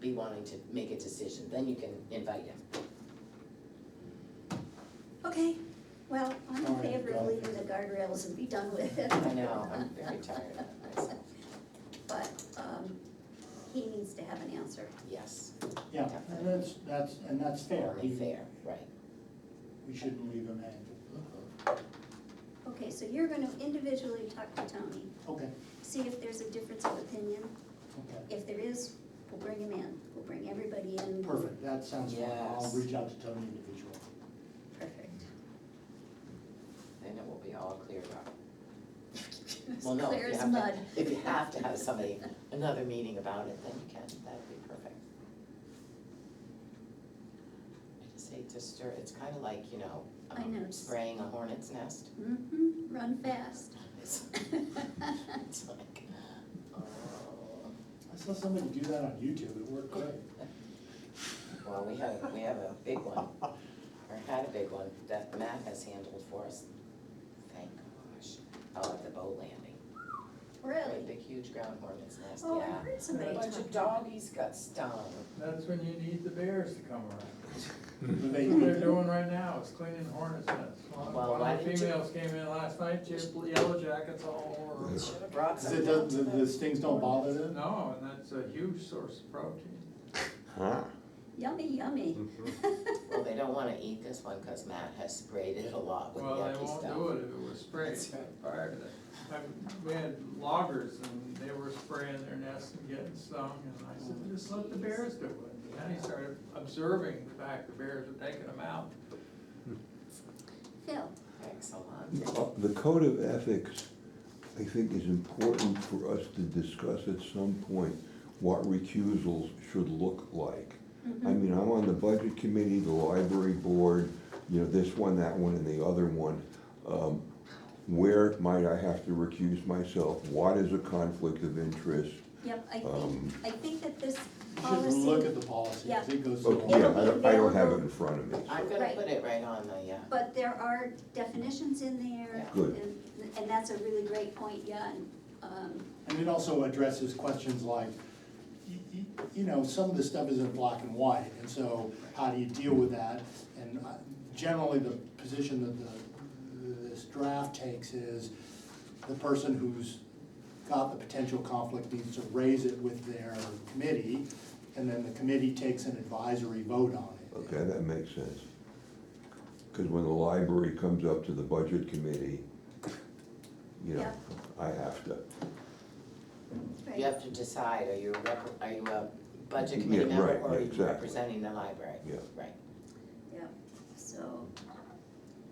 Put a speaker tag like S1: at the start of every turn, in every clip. S1: be wanting to make a decision, then you can invite him.
S2: Okay, well, I'm in
S3: Alright,
S2: favor of
S3: go.
S2: leaving the guardrails and be done with it.
S1: I know, I'm very tired of myself,
S2: But, um, he needs to have an answer.
S1: yes,
S3: Yeah, and that's, that's, and that's fair.
S1: only
S3: We
S1: fair, right.
S3: we shouldn't leave him hanging.
S2: Okay, so you're gonna individually talk to Tony,
S3: Okay,
S2: see if there's a difference of opinion.
S3: okay,
S2: If there is, we'll bring him in, we'll bring everybody in.
S3: perfect, that sounds fine. I'll
S1: Yes.
S3: reach out to Tony individually.
S2: Perfect.
S1: Then it will be all cleared up.
S2: As
S1: Well, no, if
S2: clear
S1: you
S2: as
S1: have
S2: mud.
S1: to, if you have to have somebody, another meeting about it, then you can, that'd be perfect. I just hate to stir, it's kind of like, you know,
S2: I
S1: um,
S2: know, it's-
S1: spraying a hornet's nest.
S2: hmm run fast.
S1: It's it's like, oh.
S3: I saw somebody do that on YouTube, it worked great.
S1: Well, we have, we have a big one, or had a big one, that Matt has handled for us. Thank gosh, oh, at the boat landing. Right,
S2: Really?
S1: The huge ground hornet's nest,
S2: Oh, I
S1: yeah.
S2: heard somebody
S1: A bunch
S2: talk.
S1: of doggies got stung.
S4: That's when you need the bears to come around.
S3: But
S4: That's
S3: they-
S4: what they're doing right now, is cleaning hornets' nests.
S1: Well,
S4: One
S1: why
S4: of the
S1: didn't you-
S4: females came in last night, she had yellow jackets all over. her.
S1: Should have brought
S3: Is
S1: some
S3: it,
S1: down
S3: does-
S1: to
S3: the,
S1: the-
S3: the stings don't bother them?
S4: No, and that's a huge source of protein.
S5: Huh.
S2: Yummy, yummy.
S1: Mm. Well, they don't wanna eat this one, cause Matt has sprayed it a lot with
S4: Well, they
S1: yucky
S4: won't
S1: stuff.
S4: do it if it was sprayed
S1: That's right.
S4: prior to that. I- We had loggers and they were spraying their nests and getting stung and I said, just let the bears do it. And he started observing the fact the bears were taking them out.
S2: Phil,
S1: Excellent.
S5: The code of ethics, I think, is important for us to discuss at some point what recusals should look like.
S1: Mm-hmm.
S5: I
S2: Mm-hmm.
S5: mean, I'm on the budget committee, the library board, you know, this one, that one, and the other one. Um, Where might I have to recuse myself? What is a conflict of interest?
S2: yep, I
S1: Uh,
S2: think,
S5: Um,
S2: I think that this
S3: You
S2: policy.
S3: should look at the policy, 'cause
S2: Yeah.
S3: it goes through.
S5: Okay,
S3: all-
S5: Oh, yeah,
S2: It'll
S5: I
S2: be
S5: don't, I don't have it
S2: available.
S5: in front of me,
S1: I'm
S5: so.
S1: gonna
S2: Right.
S1: put it right on the, uh,
S2: But there are definitions in there.
S1: Yeah.
S5: Good.
S2: And, and that's a really great point, yeah, and, um,
S3: And it also addresses questions like, y- y- you know, some of this stuff isn't black and white, and so how do you deal with that? And uh, generally, the position that the, this draft takes is the person who's got the potential conflict needs to raise it with their committee, and then the committee takes an advisory vote on it.
S5: Okay, that makes sense. Because when the library comes up to the budget committee, you know,
S2: Yeah.
S5: I have to.
S2: right.
S1: you have to decide, are you a rep, are you a budget
S5: Yeah,
S1: committee member
S5: right,
S1: or are
S5: yeah,
S1: you
S5: exactly.
S1: representing the library?
S5: Yeah.
S1: Right,
S2: Yep, so,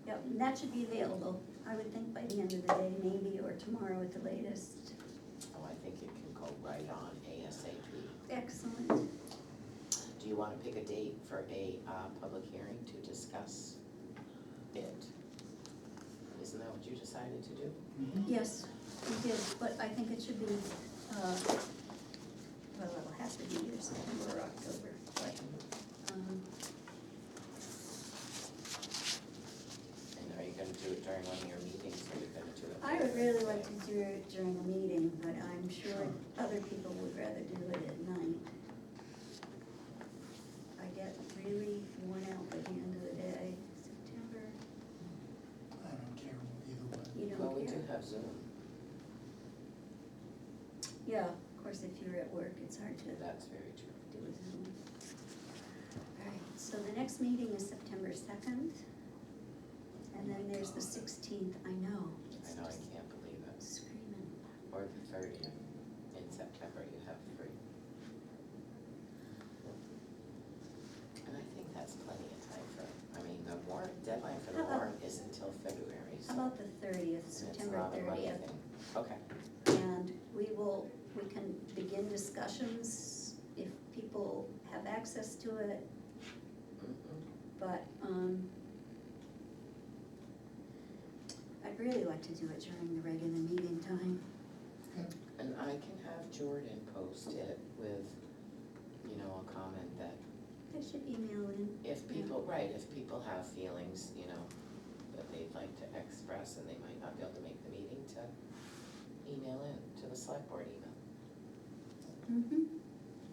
S2: yep, and that should be available, I would think by the end of the day, maybe, or tomorrow at the latest.
S1: oh, I think it can go right on ASAP.
S2: Excellent.
S1: Do you wanna pick a date for a, uh, public hearing to discuss it? Isn't that what you decided to do?
S3: Mm-hmm.
S2: Yes, we did, but I think it should be, uh, well, it'll have to be either September or October, but, um,
S1: And are you gonna do it during one of your meetings or are you gonna do it?
S2: I would really like to do it during a meeting, but I'm sure other people would rather do it at night. I get really worn out by the end of the day, September,
S3: I don't care either way.
S2: you
S1: Well,
S2: don't
S1: we
S2: care.
S1: do have Zoom,
S2: Yeah, of course, if you're at work, it's hard to do
S1: that's very true.
S2: it Zoom. All right, so the next meeting is September second, and then there's the sixteenth, I know, it's
S1: I know,
S2: just
S1: I can't believe it.
S2: screaming.
S1: Or the thirtieth in September, you have three. And I think that's plenty of time for, I mean, the warrant, deadline for the
S2: How about-
S1: warrant is until February, so.
S2: How about the
S1: and
S2: thirtieth,
S1: it's
S2: Uh-huh. September
S1: not a money
S2: thirtieth?
S1: thing. Okay,
S2: And we will, we can begin discussions if people have access to it,
S1: Mhm.
S2: but, um, I'd really like to do it during the regular meeting time.
S1: and I can have Jordan post it with, you know, a comment that
S2: I should email in.
S1: if people, right, if people have feelings, you know, that they'd like to express and they might not be able to make the meeting, to email in, to the select board email.
S2: Mm-hmm.